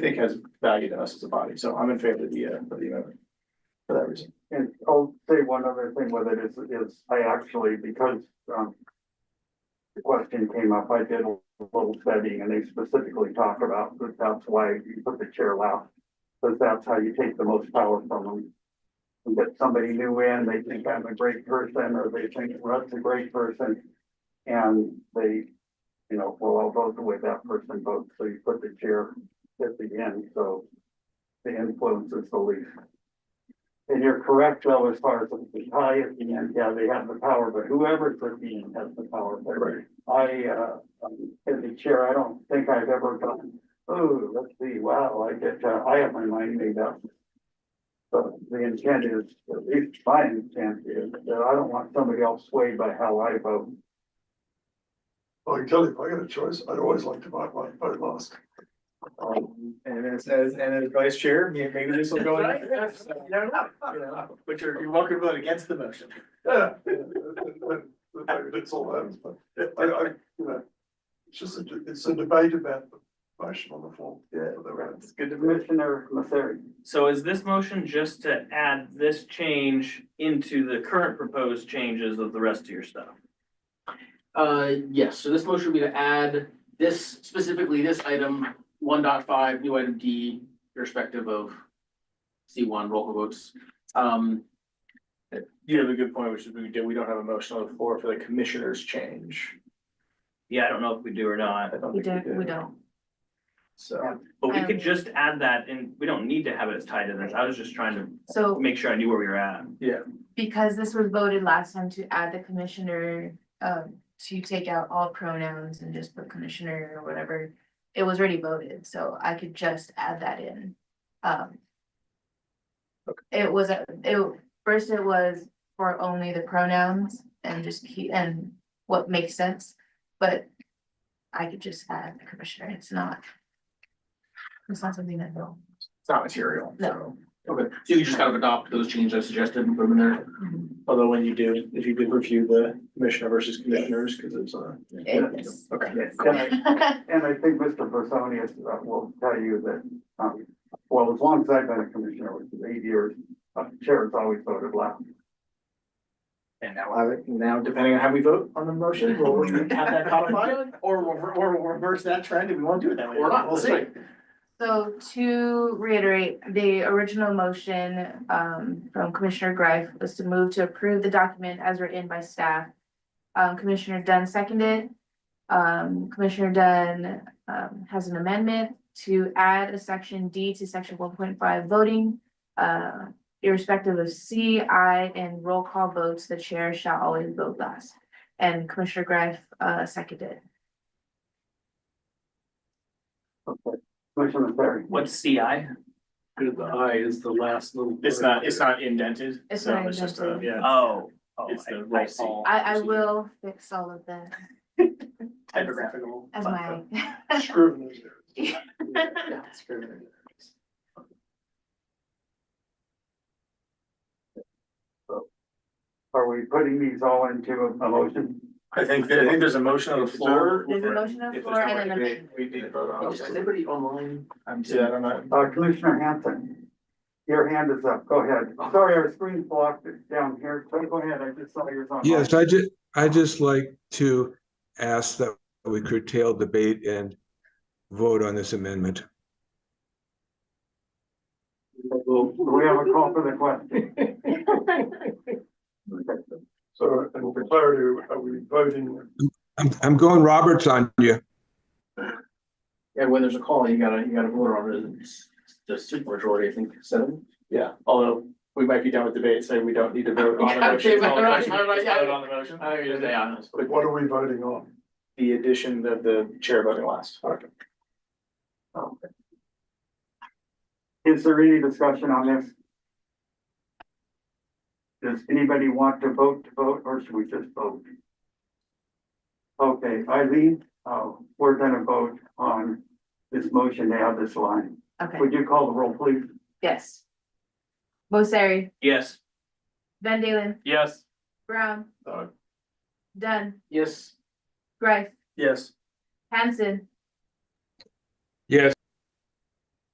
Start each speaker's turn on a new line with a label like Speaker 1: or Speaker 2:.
Speaker 1: think has value to us as a body, so I'm in favor of the, uh, of the amendment. For that reason.
Speaker 2: And I'll say one other thing with it is, is I actually, because, um. The question came up, I did a little studying and they specifically talk about that that's why you put the chair last. Because that's how you take the most power from them. You get somebody new in, they think I'm a great person, or they think Russ a great person. And they, you know, well, I'll vote the way that person votes, so you put the chair at the end, so. The influence is the least. And you're correct, though, as far as the tie at the end, yeah, they have the power, but whoever's at the end has the power. But
Speaker 1: Right.
Speaker 2: I, uh, um, as a chair, I don't think I've ever gone, oh, let's see, wow, I get, uh, I have my mind made up. But the intent is, at least my intent is, that I don't want somebody else swayed by how I vote.
Speaker 3: I can tell you, if I got a choice, I'd always like to buy my, I lost.
Speaker 1: Um, and it says, and as vice chair, may- maybe this will go in.
Speaker 2: Right, yes.
Speaker 1: You don't know, you know, but you're, you're welcome to vote against the motion.
Speaker 3: Yeah. It's all that, but I, I, you know, it's just, a- it's a debate about the motion on the floor.
Speaker 1: Yeah.
Speaker 3: For the round.
Speaker 1: It's good to vote.
Speaker 2: Commissioner Masseri,
Speaker 4: So is this motion just to add this change into the current proposed changes of the rest of your stuff?
Speaker 5: Uh, yes, so this motion would be to add this, specifically this item, one dot five, new item D, irrespective of C one, roll call votes. Um,
Speaker 1: You have a good point, which is we do, we don't have a motion on the floor for the commissioners change.
Speaker 4: Yeah, I don't know if we do or
Speaker 1: I
Speaker 4: not,
Speaker 1: don't
Speaker 6: We
Speaker 1: think
Speaker 6: don't, we don't.
Speaker 1: So,
Speaker 4: but we
Speaker 6: Um,
Speaker 4: could just add that and we don't need to have it as tied to this. I was just trying to
Speaker 6: So
Speaker 4: make sure I knew where we were at.
Speaker 6: because this was voted last time to add the commissioner, um, to take out all pronouns and just put commissioner or whatever. It was already voted, so I could just add that in. Um. It was, a- it, first it was for only the pronouns and just keep, and what makes sense, but. I could just add the commissioner, it's not. It's not something that will.
Speaker 1: it's not material, so.
Speaker 6: No.
Speaker 5: okay, so you just kind of adopt those changes I suggested and put them in there.
Speaker 6: Mm-hmm.
Speaker 1: Although when you do, if you did review the commissioner versus commissioners, because it's uh, a.
Speaker 6: It's-
Speaker 1: Okay.
Speaker 2: and I, and I think Mr. Bersonius uh, will tell you that, um, well, as long as I've been a commissioner, which is eight years, uh, chair has always voted last.
Speaker 1: And now, I would- now depending on how we vote on the motion, we'll have that codified, or we'll, re- or we'll reverse that trend and we won't do it that way.
Speaker 5: Or not,
Speaker 1: We'll
Speaker 5: that's
Speaker 1: see.
Speaker 5: right.
Speaker 6: So to reiterate, the original motion um from Commissioner Greif was to move to approve the document as written by staff. Um, Commissioner Dunn seconded. Um, Commissioner Dunn um, has an amendment to add a section D to section one point five voting. Uh, irrespective of C, I, and roll call votes, the chair shall always vote last. And Commissioner Greif uh seconded.
Speaker 2: Okay, Commissioner Masseri.
Speaker 4: What's CI?
Speaker 7: The I is the last little.
Speaker 1: It's not, it's not indented.
Speaker 6: It's
Speaker 1: so
Speaker 6: not
Speaker 1: just a-
Speaker 6: indented.
Speaker 1: Yeah.
Speaker 4: Oh. oh,
Speaker 1: It's the
Speaker 4: I-
Speaker 1: roll
Speaker 4: I see.
Speaker 1: call.
Speaker 6: I I will fix all of the
Speaker 1: Typographical.
Speaker 6: as my.
Speaker 1: fun
Speaker 3: Scrivener's error.
Speaker 1: stuff. Yeah, it's good.
Speaker 2: Are we putting these all into a a motion?
Speaker 1: I think, that- I think there's a motion on the floor.
Speaker 6: There's a motion on the
Speaker 1: If there's
Speaker 6: floor and an
Speaker 1: nobody-
Speaker 6: amendment.
Speaker 1: We we need to vote on.
Speaker 5: Is anybody online? I'm
Speaker 1: Yeah, I don't know.
Speaker 2: Uh, Commissioner Hanson, your hand is up. Go ahead. Sorry, our screen blocked it down here. So go ahead. I just saw yours on.
Speaker 8: Yes, I ju- I just like to ask that we curtail debate and vote on this amendment.
Speaker 2: We have a call for the question.
Speaker 3: So, and for clarity, are we voting?
Speaker 8: I'm, I'm going Roberts on you.
Speaker 5: Yeah, when there's a call, you gotta, you gotta vote on it, it's the super majority, I think, seven.
Speaker 1: Yeah, although we might be done with debate, so we don't need to vote on the
Speaker 5: Yeah,
Speaker 1: motion.
Speaker 5: okay, but-
Speaker 1: Just
Speaker 5: yeah.
Speaker 1: vote on the motion. Oh,
Speaker 5: I mean, yeah, it's-
Speaker 3: Like, what are we voting on?
Speaker 1: The addition of the chair voting last.
Speaker 2: Is there any discussion on this? Does anybody want to vote to vote or should we just vote? Okay, Eileen, uh, we're gonna vote on this motion to add this line.
Speaker 6: Okay,
Speaker 2: Would you call the roll, please?
Speaker 6: yes. Bossari,
Speaker 4: Yes,
Speaker 6: Van Dalen,
Speaker 4: yes,
Speaker 6: Brown,
Speaker 3: No.
Speaker 6: Dunn,
Speaker 5: yes,
Speaker 6: Greif,
Speaker 1: Yes.
Speaker 6: Hanson,